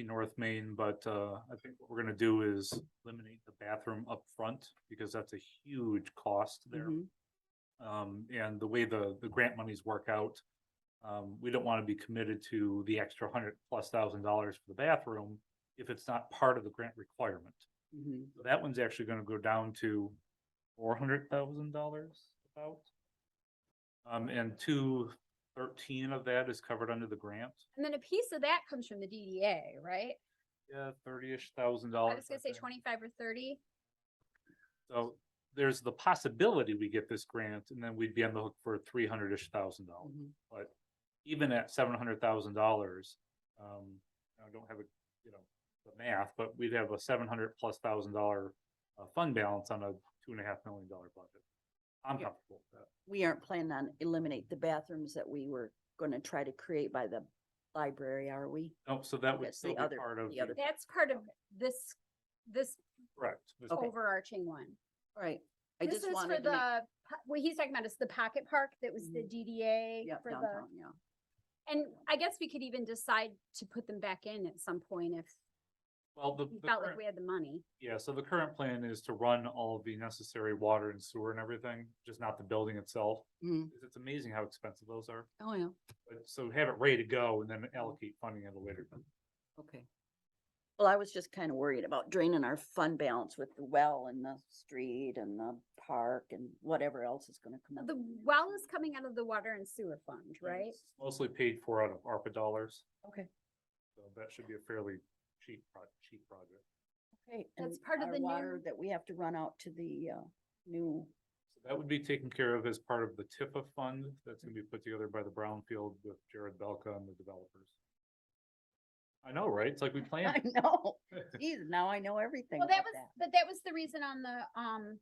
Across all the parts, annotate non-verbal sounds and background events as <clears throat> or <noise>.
in North Main, but uh, I think what we're gonna do is eliminate the bathroom up front because that's a huge cost there. Mhm. Mm-hmm. Um, and the way the, the grant monies work out, um, we don't wanna be committed to the extra hundred plus thousand dollars for the bathroom if it's not part of the grant requirement. Mhm. So That one's actually gonna go down to four hundred thousand dollars about. Um, and two thirteen of that is covered under the grant. And then a piece of that comes from the DDA, right? Yeah, thirty-ish thousand I dollars. was gonna say twenty-five or thirty. So there's the possibility we get this grant and then we'd be on the hook for three hundred-ish thousand dollars. Mhm. Even at seven hundred thousand dollars, um, I don't have a, you know, the math, but we'd have a seven hundred plus thousand dollar uh, fund balance on a two and a half million dollar budget. I'm Yeah. comfortable with that. We aren't planning on eliminate the bathrooms that we were gonna try to create by the library, are we? Oh, so that would That's the still be other- part of, the the- other- That's part of this, this correct. This- Okay. overarching one. All Right. I This is just for wanted to the, make. po- what he's talking about is the pocket park that was the Mhm. DDA Yep, for downtown, the, yeah. and I guess we could even decide to put them back in at some point if Well, the, we the felt current- like we had the money. yeah, so the current plan is to run all of the necessary water and sewer and everything, just not the building itself. Mhm. It's amazing how expensive those are. Oh, yeah, But so have it ready to go and then allocate funding at a later. time. okay. Well, I was just kind of worried about draining our fund balance with the well and the street and the park and whatever else is gonna come up. The well is coming out of the water and sewer fund, right? It's Mostly paid for out of ARPA dollars, Okay. so that should be a fairly cheap, pro- cheap project. Okay. That's and part of our the water new- That we have to run out to the, uh, new, So that would be taken care of as part of the TIFA fund that's gonna be put together by the Brownfield with Jared Belka and the developers. I know, right? It's like we <laughs> I planned. know, geez, now I know everything Well, that about was, but that was the reason on the, um,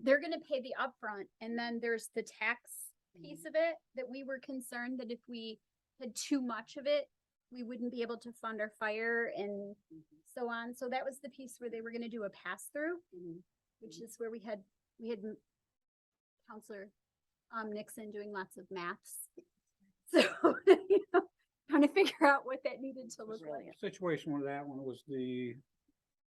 they're gonna pay the upfront and then there's the tax Mm-hmm. piece of it that we were concerned that if we had too much of it, we wouldn't be able to fund our fire and Mm-hmm. so on. So that was the piece where they were gonna do a pass through, Mhm. which Mm-hmm. is where we had, we had m- Counselor, um, Nixon doing lots of maths. So, <laughs> you know, trying to figure out what that needed to look like. Brilliant. situation with that one was the,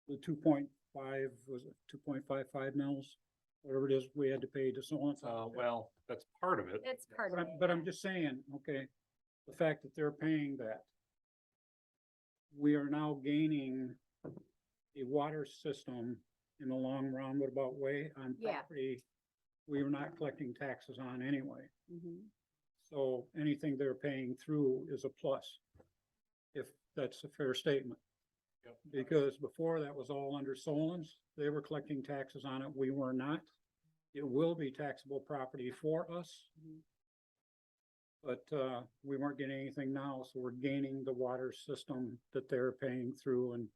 the two point five, was it two point five five mils? Whatever it is, we had to pay to someone. Uh, well, that's part of it. That's part But of I'm, it. but I'm just saying, okay, the fact that they're paying that. We are now gaining a water system in the long roundabout way on Yeah. property. We are not collecting taxes on anyway. Mhm. So anything they're paying through is a plus. If that's a fair statement. Yep. Because before that was all under Solon's, they were collecting taxes on it, we were not. It will be taxable property for us. Mhm. But, uh, we weren't getting anything now, so we're gaining the water system that they're paying through and,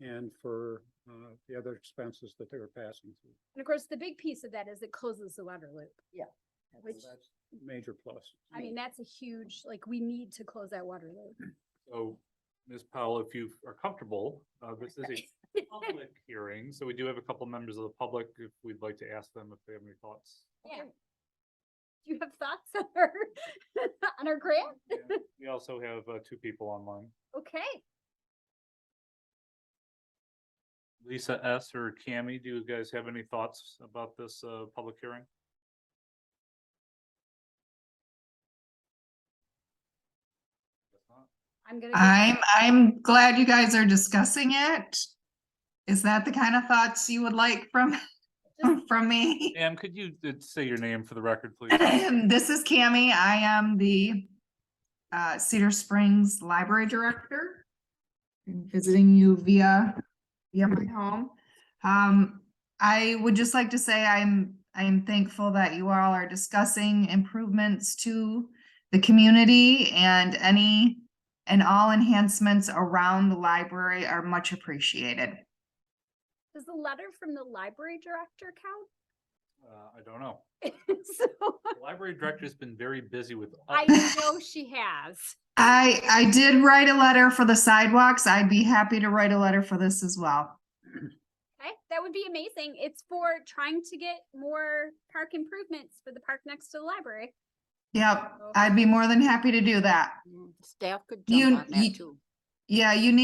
and for, uh, the other expenses that they were passing through. And of course, the big piece of that is it closes the water loop. That's- Which- that's Major plus. I mean, that's a huge, like, we need to close that water loop. So, Ms. Powell, if you are comfortable, uh, this is a public hearing, so we do have a couple members of the public, if we'd like to ask them if they have any thoughts. Yeah. Do you have thoughts <laughs> on our, on our grant? And We also have, uh, two people online, Okay, Lisa S. or Cammy, do you guys have any thoughts about this, uh, public hearing? Guess not. I'm gonna. go- I'm, I'm glad you guys are discussing it. Is that the kind of thoughts you would like from, <laughs> from me? Ma'am, could you uh, say your name for the record, <clears throat> please? Uh, This is Cammy. I am the uh, Cedar Springs Library Director. I'm Visiting you via, via my home. Um, I would just like to say I'm, I am thankful that you all are discussing improvements to the community and any and all enhancements around the library are much appreciated. Does the letter from the library director count? Uh, I don't know. <laughs> So, The Library director's been very busy with. I other- know she has. I, I did write a letter for the sidewalks. I'd be happy to write a letter for this as well. Okay, that would be amazing. It's for trying to get more park improvements for the park next to the library. Yep, I'd be more than happy to do that. Mm, Staff could You- jump on you- that too. Yeah, you need